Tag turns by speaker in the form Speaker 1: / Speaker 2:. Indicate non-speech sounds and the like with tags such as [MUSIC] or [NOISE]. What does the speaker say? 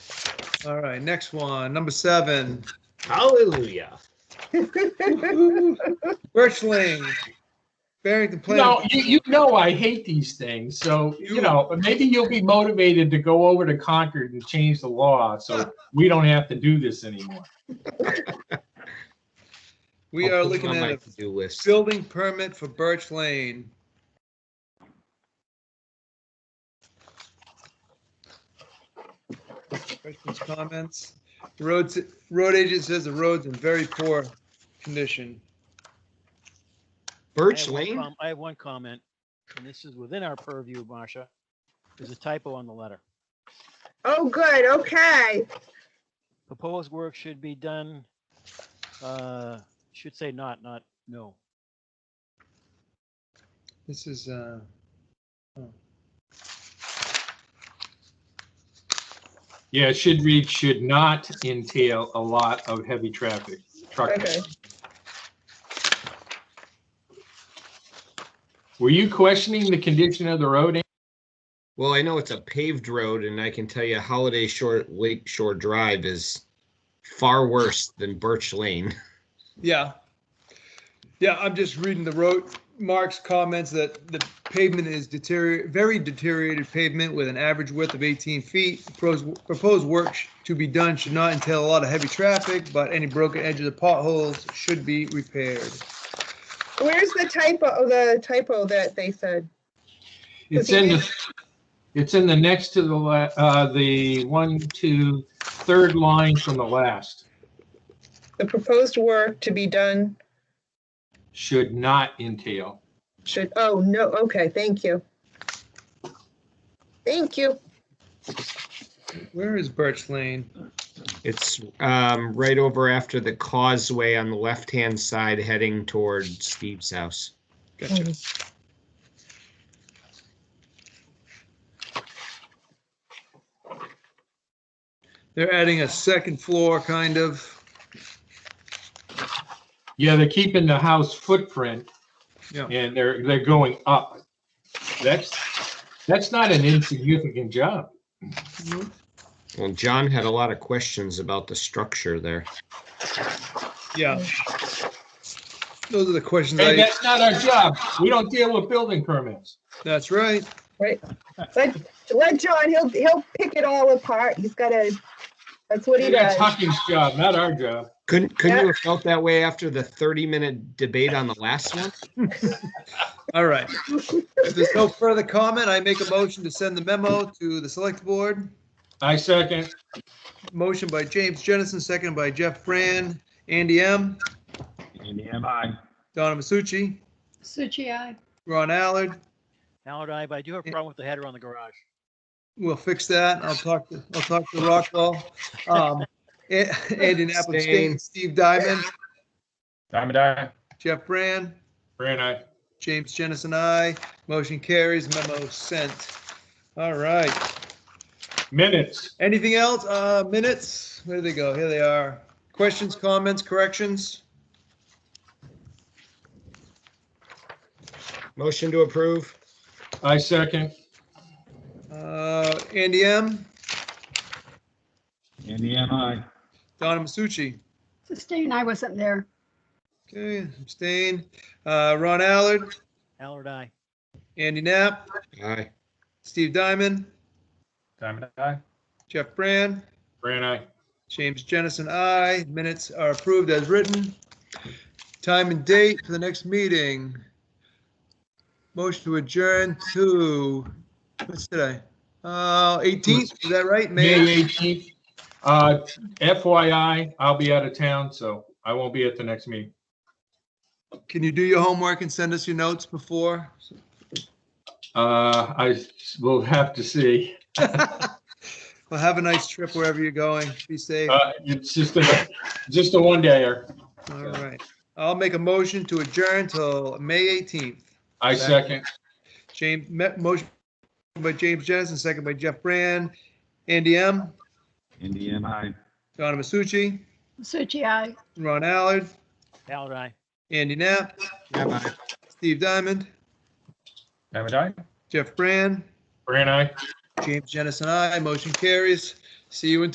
Speaker 1: All right, next one, number seven,
Speaker 2: Hallelujah.
Speaker 1: Birchling. Barrington
Speaker 3: No,
Speaker 1: Planning.
Speaker 3: you, you know I hate these things, so, you know, maybe you'll be motivated to go over to Concord and change the law, so we don't have to do this anymore.
Speaker 1: We
Speaker 2: I'll
Speaker 1: are
Speaker 2: put it
Speaker 1: looking
Speaker 2: on my
Speaker 1: at a
Speaker 2: to-do list.
Speaker 1: building permit for Birch Lane. Questions, comments? The Roads, road agent says the road's in very poor condition.
Speaker 4: I
Speaker 2: Birch
Speaker 4: have one
Speaker 2: Lane?
Speaker 4: com- I have one comment, and this is within our purview, Marcia. There's a typo on the letter.
Speaker 5: Oh, good, okay.
Speaker 4: Proposed work should be done, uh, should say not, not, no.
Speaker 1: This is, uh,
Speaker 3: Yeah, it should read, should not entail a lot of heavy traffic, truck.
Speaker 5: Okay.
Speaker 3: Were you questioning the condition of the road? Andy?
Speaker 2: Well, I know it's a paved road and I can tell you Holiday Shore, Lake Shore Drive is far worse than Birch Lane. [LAUGHS]
Speaker 1: yeah. Yeah, I'm just reading the road, Mark's comments that the pavement is deterior, very deteriorated pavement with an average width of 18 feet. Proposed, proposed work sh- to be done should not entail a lot of heavy traffic, but any broken edges of potholes should be repaired.
Speaker 5: Where's the typo, oh, the typo that they said?
Speaker 3: It's in the, it's in the next to the, la- uh, the one, two, third line from the last.
Speaker 5: The proposed work to be done
Speaker 3: Should not entail.
Speaker 5: should, oh, no, okay, thank you. Thank you.
Speaker 1: Where is Birch Lane?
Speaker 2: It's um, right over after the causeway on the left-hand side heading toward Steve's house.
Speaker 1: Gotcha. They're adding a second floor, kind of.
Speaker 3: Yeah, they're keeping the house footprint.
Speaker 1: Yeah.
Speaker 3: And they're, they're going up. That's, that's not an insignificant job.
Speaker 2: Well, John had a lot of questions about the structure there.
Speaker 1: Yeah. Those are the questions
Speaker 3: Hey,
Speaker 1: I,
Speaker 3: that's not our job. We don't deal with building permits.
Speaker 1: that's right.
Speaker 5: Let, let John, he'll, he'll pick it all apart. He's got to, that's what he
Speaker 3: That's
Speaker 5: does.
Speaker 3: Hucking's job, not our job.
Speaker 2: Couldn't, couldn't you have felt that way after the 30-minute debate on the last one?
Speaker 1: All right. If there's no further comment, I make a motion to send the memo to the select board.
Speaker 3: I second.
Speaker 1: Motion by James Jennison, second by Jeff Brand, Andy M,
Speaker 6: Andy, am I?
Speaker 1: Donna Masucci,
Speaker 7: Suchi, aye.
Speaker 1: Ron Allard.
Speaker 4: Now and I, but I do have a problem with the header on the garage.
Speaker 1: We'll fix that. I'll talk, to I'll talk to Rockwell. Um, A- Andy Napoli,
Speaker 2: Abstain.
Speaker 1: State, Steve Diamond,
Speaker 6: Diamond Eye?
Speaker 1: Jeff Brand,
Speaker 3: Fran, I.
Speaker 1: James Jennison, I. Motion carries, memo sent. All right.
Speaker 3: Minutes.
Speaker 1: Anything else? Uh, minutes? Where do they go? Here they are. Questions, comments, corrections?
Speaker 2: Motion to approve?
Speaker 3: I second.
Speaker 1: Uh, Andy M,
Speaker 6: Andy, am I?
Speaker 1: Donna Masucci.
Speaker 7: Sustain, I wasn't there.
Speaker 1: Okay, abstain. Uh, Ron Allard,
Speaker 4: Allard, I.
Speaker 1: Andy Knapp,
Speaker 2: Aye.
Speaker 1: Steve Diamond,
Speaker 6: Diamond Eye?
Speaker 1: Jeff Brand,
Speaker 3: Fran, I.
Speaker 1: James Jennison, I. Minutes are approved as written. Time and date for the next meeting. Motion to adjourn to, what's today? Uh, 18th, is that right? May?
Speaker 3: May 18th. Uh, FYI, I'll be out of town, so I won't be at the next meeting.
Speaker 1: Can you do your homework and send us your notes before?
Speaker 3: Uh, I will have to see.
Speaker 1: Well, have a nice trip wherever you're going. Be safe.
Speaker 3: Uh, it's just a, just a one dayer.
Speaker 1: All right. I'll make a motion to adjourn till May 18th.
Speaker 3: I second.
Speaker 1: James, me- motion by James Jennison, second by Jeff Brand, Andy M,
Speaker 6: Andy, am I?
Speaker 1: Donna Masucci,
Speaker 7: Suchi, aye.
Speaker 1: Ron Allard,
Speaker 4: Allard, I.
Speaker 1: Andy Knapp, Steve Diamond,
Speaker 6: Diamond Eye?
Speaker 1: Jeff Brand,
Speaker 3: Fran, I.
Speaker 1: James Jennison, I. Motion carries. See you in